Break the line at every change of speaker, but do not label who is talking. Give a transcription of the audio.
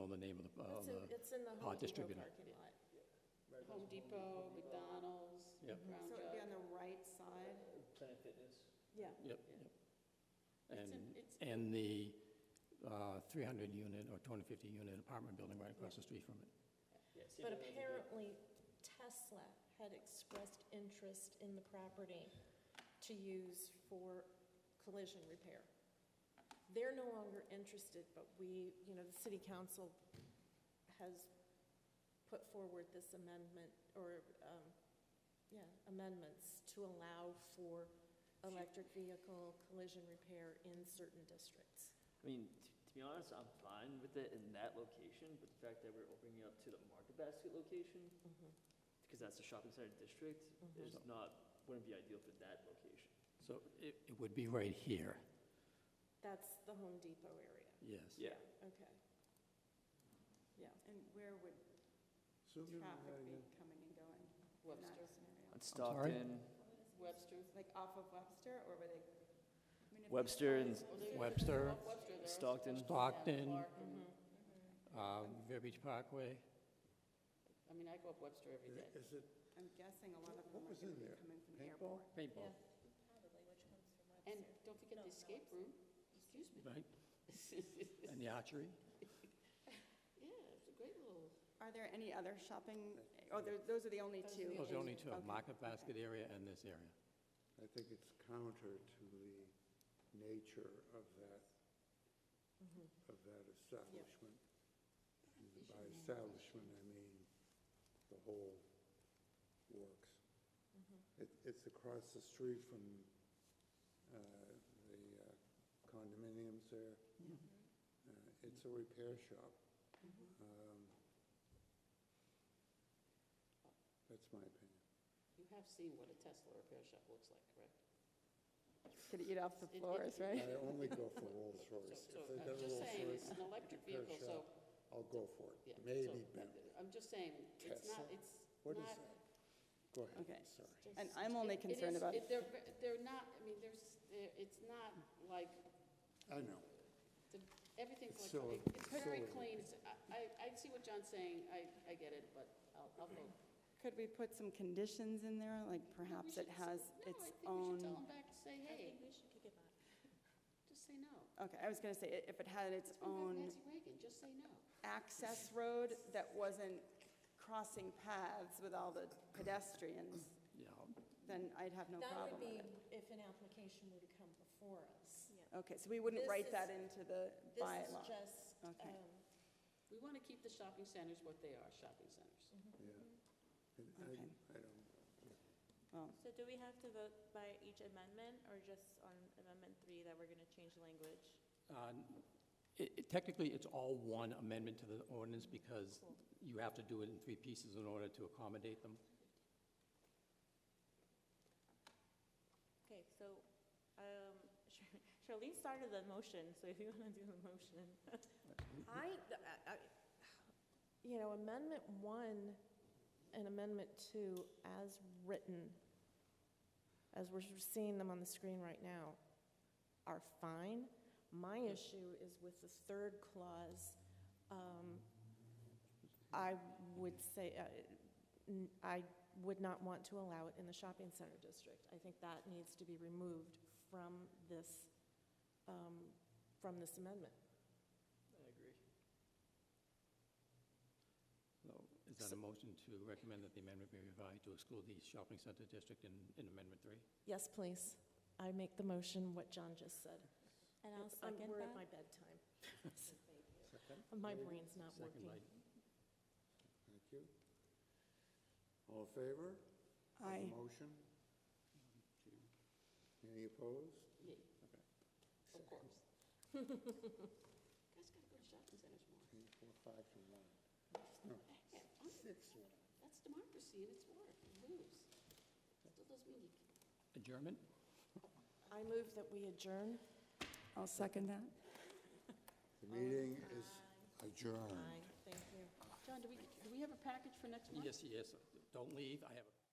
uh,
in the
Oh,
Home Depot
distributor.
parking lot. Home Depot, McDonald's,
Yep.
Brown
So it'd be on
Jug.
the right side?
Planet Fitness.
Yeah.
Yep, yep.
It's
And,
in- it's-
and the uh, 300 unit or 250 unit apartment building right across the street from it.
Yeah, see if
But
it has a big-
apparently Tesla had expressed interest in the property to use for collision repair. They're no longer interested, but we, you know, the city council has put forward this amendment, or, um, yeah, amendments to allow for electric vehicle collision repair in certain districts.
I mean, t- to be honest, I'm fine with it in that location, but the fact that we're opening it up to the Market Basket location, because that's a shopping center district,
Mm-hmm.
is not, wouldn't be ideal for that location.
So it, it would be right here,
That's the Home Depot area,
yes.
Yeah.
okay. Yeah.
And where would traffic be coming and going? in that
Webster.
scenario?
On
sorry?
Stockton,
Webster.
Like off of Webster, or were they? I mean, if they
Webster and
started-
Webster,
Stockton,
Stockton,
Mhm.
Mm-hmm.
uh, Village Parkway,
I mean, I go up Webster every day.
Is it
I'm guessing a lot of them
What
are
was
gonna
in
be
there?
coming from the
paintball?
airport.
paintball,
And don't forget the escape room, excuse me.
right?
Yeah,
And the archery?
it's a great little,
Are there any other shopping, oh, there- those are the only
Those are
two?
the
Those are only two,
Okay,
Market
okay.
Basket area and this area.
I think it's counter to the nature of that,
Mm-hmm.
of that establishment. And By establishment, I mean the whole works.
Mm-hmm.
It, it's across the street from, uh, the uh, condominiums there. Uh, It's a repair shop.
Mm-hmm.
Um, That's my opinion.
you have seen what a Tesla repair shop looks like, correct?
Gonna eat off the
It- it-
floors, right?
I only go for Rolls
So,
Royce.
so
If they
I'm
got a
just
Rolls
saying,
Royce
it's an electric
repair
vehicle, so,
shop, I'll go for it.
yeah.
Maybe
so, uh,
Bentley.
I'm just saying, it's not,
Tesla?
it's
What is
not.
that? Go ahead,
Okay.
sorry.
And I'm only
it- it
concerned
is-
about,
it- They're, ve- they're not, I mean, there's, there- it's not like,
I know.
the- everything's
It's
like,
so-
it's very
so-
clean. It's- I- I, I see what John's saying, I, I get it, but I'll, I'll vote.
could we put some conditions in there, like perhaps it
should
has
No, I think we
its
should tell
own?
them back to say, hey, just say no.
Okay, I was gonna say, i- if it had its
We've got
own
Nancy Reagan, just say no.
access road that wasn't crossing paths with all the pedestrians,
Yeah,
then I'd have no
That would
problem
be
with it.
if an application were to come before us.
Okay, so we wouldn't
This
write
is-
that into the
This is
bylaw?
just, um,
Okay.
We want to keep the shopping centers what they are, shopping centers.
Yeah. And I,
Okay.
I don't,
Well,
So do we have to vote by each amendment, or just on amendment three that we're gonna change language?
Uh, it- it- Technically, it's all one amendment to the ordinance because you have to do it in three pieces in order to accommodate them.
Okay, so, um, Char- Charlene started the motion, so if you wanna do the motion.
I, uh, I- I- you know, Amendment 1 and Amendment 2 as written, as we're seeing them on the screen right now, are fine. My issue is with the third clause. um, I would say, uh, n- I would not want to allow it in the shopping center district. I think that needs to be removed from this, um, from this amendment.
I agree.
So is that a motion to recommend that the amendment be revised to exclude the shopping center district in, in Amendment 3?
Yes, please. I make the motion, what John just said.
And I'll
It's- um,
second
We're at my
that.
bedtime. My brain's not
Second
working.
by
thank you. All in favor? of the
I,
Motion? Any opposed?
Yeah. Of course. Guys gotta go to shopping centers more.
Three, four, five to one.
Yeah, I'm-
Six to one.
That's democracy and it's war, you lose. Still doesn't mean you
adjournment?
I move that we adjourn.
I'll second that.
The meeting is adjourned.
Thank you.
John, do we, do we have a package for next month?
Yes, yes. Don't leave. I have a...